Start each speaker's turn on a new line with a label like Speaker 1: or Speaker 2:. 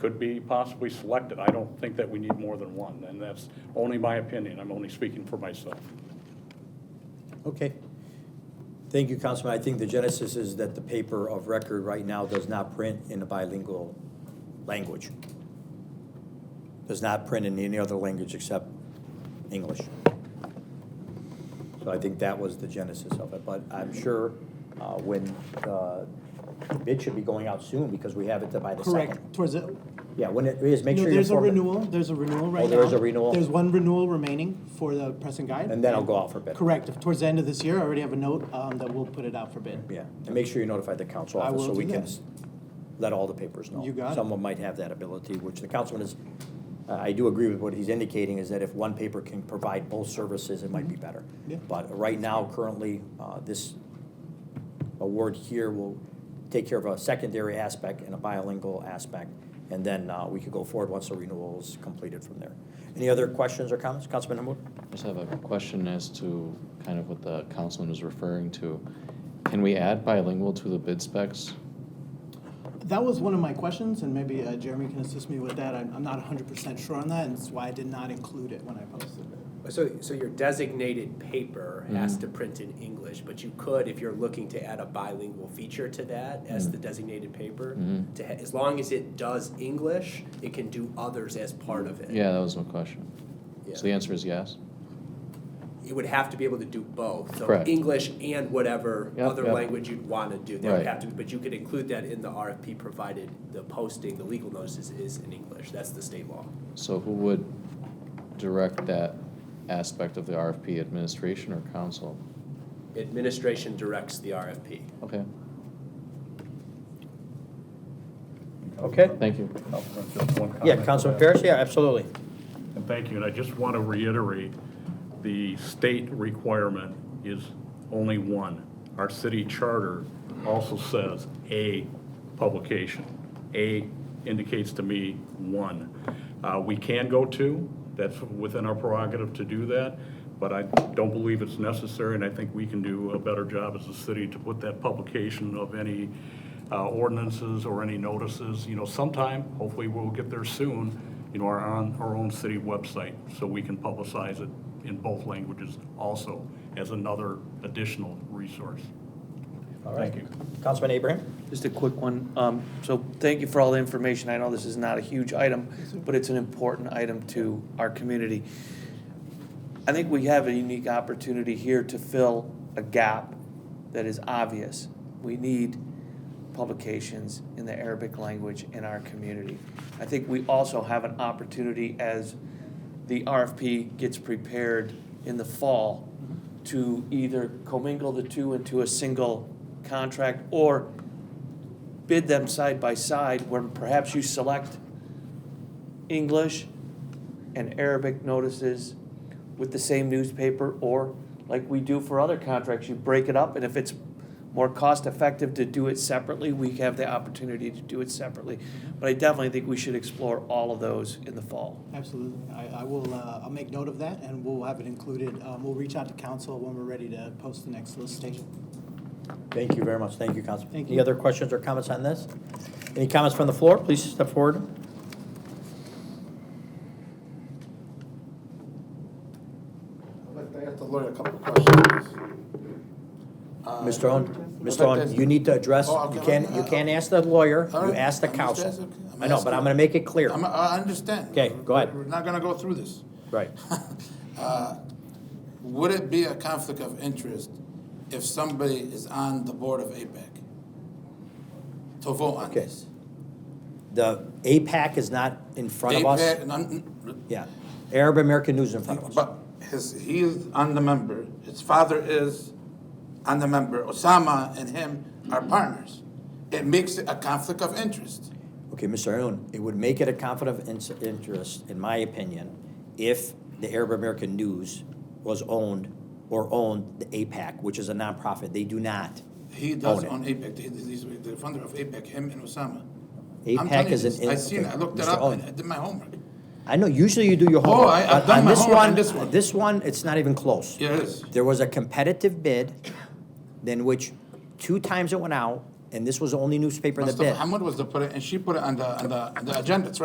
Speaker 1: could be possibly selected. I don't think that we need more than one, and that's only my opinion. I'm only speaking for myself.
Speaker 2: Okay. Thank you, Councilman. I think the genesis is that the paper of record right now does not print in a bilingual language. Does not print in any other language except English. So I think that was the genesis of it, but I'm sure uh, when, uh, the bid should be going out soon because we have it by the second.
Speaker 3: Correct, towards it.
Speaker 2: Yeah, when it is, make
Speaker 3: No,
Speaker 2: sure you're
Speaker 3: there's a
Speaker 2: informed.
Speaker 3: renewal, there's a renewal right now.
Speaker 2: there is a renewal?
Speaker 3: There's one renewal remaining for the press and guide.
Speaker 2: And then I'll go out for bid.
Speaker 3: Correct, If towards the end of this year, I already have a note um, that we'll put it out for bid.
Speaker 2: Yeah, and make sure you notify the council
Speaker 3: I
Speaker 2: office so
Speaker 3: will
Speaker 2: we
Speaker 3: do
Speaker 2: can
Speaker 3: that.
Speaker 2: let all the papers know.
Speaker 3: You got it.
Speaker 2: Someone might have that ability, which the councilman is, uh, I I do agree with what he's indicating, is that if one paper can provide both services, it might be better.
Speaker 3: Mm-hmm. Yeah.
Speaker 2: But right now, currently, uh, this award here will take care of a secondary aspect and a bilingual aspect, and then uh, we could go forward once the renewal is completed from there. Any other questions or comments? Councilman Hamud?
Speaker 4: I just have a question as to kind of what the councilman was referring to. Can we add bilingual to the bid specs?
Speaker 3: That was one of my questions, and maybe uh, Jeremy can assist me with that. I'm I'm not 100% sure on that, and that's why I did not include it when I posted it.
Speaker 5: So, so your designated paper has
Speaker 4: Mm-hmm.
Speaker 5: to print in English, but you could, if you're looking to add a bilingual feature to that as
Speaker 4: Mm-hmm.
Speaker 5: the designated paper, to ha- as long as it does English, it can do others as part of it.
Speaker 4: Yeah, that was my question. So the
Speaker 5: Yeah.
Speaker 4: answer is yes?
Speaker 5: It would have to be able to do both, so
Speaker 4: Correct.
Speaker 5: English and whatever
Speaker 4: Yep,
Speaker 5: other
Speaker 4: yep.
Speaker 5: language you'd want to do. That would
Speaker 4: Right.
Speaker 5: have to, but you could include that in the RFP, provided the posting, the legal notices is in English. That's the state law.
Speaker 4: So who would direct that aspect of the RFP, administration or council?
Speaker 5: Administration directs the RFP.
Speaker 4: Okay,
Speaker 2: Okay.
Speaker 4: thank you.
Speaker 1: Councilman, just one comment.
Speaker 2: Yeah, Councilman Paris, yeah, absolutely.
Speaker 1: And thank you, and I just want to reiterate, the state requirement is only one. Our city charter also says a publication. A indicates to me one. Uh, We can go two, that's within our prerogative to do that, but I don't believe it's necessary, and I think we can do a better job as a city to put that publication of any uh, ordinances or any notices, you know, sometime, hopefully we'll get there soon, you know, are on our own city website, so we can publicize it in both languages also as another additional resource.
Speaker 2: All right.
Speaker 1: Thank you.
Speaker 2: Councilman Abraham?
Speaker 6: Just a quick one. Um, So thank you for all the information. I know this is not a huge item, but it's an important item to our community. I think we have a unique opportunity here to fill a gap that is obvious. We need publications in the Arabic language in our community. I think we also have an opportunity as the RFP gets prepared in the fall to either commingle the two into a single contract or bid them side by side where perhaps you select English and Arabic notices with the same newspaper, or like we do for other contracts, you break it up, and if it's more cost effective to do it separately, we have the opportunity to do it separately. But I definitely think we should explore all of those in the fall.
Speaker 3: Absolutely. I I will, uh, I'll make note of that, and we'll have it included. Um, We'll reach out to council when we're ready to post the next solicitation.
Speaker 2: Thank you very much. Thank you, Councilman.
Speaker 3: Thank
Speaker 2: Any
Speaker 3: you.
Speaker 2: other questions or comments on this? Any comments from the floor? Please step forward.
Speaker 7: I'd like to ask the lawyer a couple of questions. Uh,
Speaker 2: Mr. Owen,
Speaker 7: What's
Speaker 2: Mr.
Speaker 7: up,
Speaker 2: Owen,
Speaker 7: Desmond?
Speaker 2: you need to address,
Speaker 7: Oh,
Speaker 2: you
Speaker 7: okay.
Speaker 2: can't, you can't ask the lawyer,
Speaker 7: All
Speaker 2: you
Speaker 7: right.
Speaker 2: ask the
Speaker 7: I'm just
Speaker 2: council.
Speaker 7: asking- I'm
Speaker 2: I know, but I'm
Speaker 7: asking.
Speaker 2: gonna make it clear.
Speaker 7: I'm- I understand.
Speaker 2: Okay, go ahead.
Speaker 7: We're not gonna go through this.
Speaker 2: Right.
Speaker 7: Would it be a conflict of interest if somebody is on the board of APEC to vote on
Speaker 2: Okay.
Speaker 7: this?
Speaker 2: The APAC is not in front of us.
Speaker 7: APAC, none-
Speaker 2: Yeah. Arab American News is in front of us.
Speaker 7: But his, he is on the member, his father is on the member, Osama and him are partners. It makes it a conflict of interest.
Speaker 2: Okay, Mr. Owen, it would make it a conflict of ins- interest, in my opinion, if the Arab American News was owned or owned the APAC, which is a nonprofit. They do not.
Speaker 7: He does
Speaker 2: Own it.
Speaker 7: own APEC, He- he's the founder of APEC, him and Osama. I'm telling
Speaker 2: APAC
Speaker 7: you
Speaker 2: E is
Speaker 7: this.
Speaker 2: an.
Speaker 7: I seen, it. I looked it
Speaker 2: Mr.
Speaker 7: up,
Speaker 2: Owen,
Speaker 7: and I did my homework.
Speaker 2: I know, usually you do your homework.
Speaker 7: I- I've
Speaker 2: but
Speaker 7: done my homework on this one.
Speaker 2: This one, it's not even close.
Speaker 7: Yeah, it is.
Speaker 2: There was a competitive bid in which two times it went out, and this was the only newspaper in the
Speaker 7: Mustafa
Speaker 2: bid.
Speaker 7: Hamud was to put it, and she put it on the, on the, the agenda, it's